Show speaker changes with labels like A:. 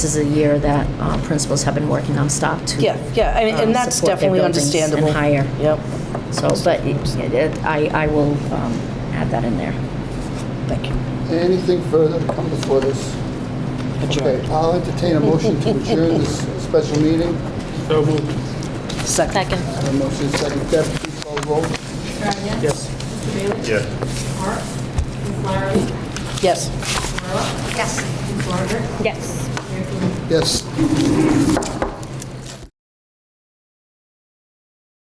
A: This is a year that uh, principals have been working nonstop to.
B: Yeah, yeah, I mean,
A: um,
B: and that's
A: support their
B: definitely
A: buildings
B: understandable.
A: And higher.
B: Yep,
A: So, but it- it- I, I will um, add that in there.
B: thank you.
C: Anything further to come before this? Okay, I'll entertain a motion to adjourn this special meeting.
D: So moved.
B: Second.
C: I have a motion, second. Deb, please call the roll.
E: Tryon.
D: Yes.
E: Mr. Bailey.
D: Yes.
E: Mark. Ms. Larry.
B: Yes.
E: Marla. Yes. Ms. Larder.
F: Yes.
E: Mayor Coogan.
C: Yes.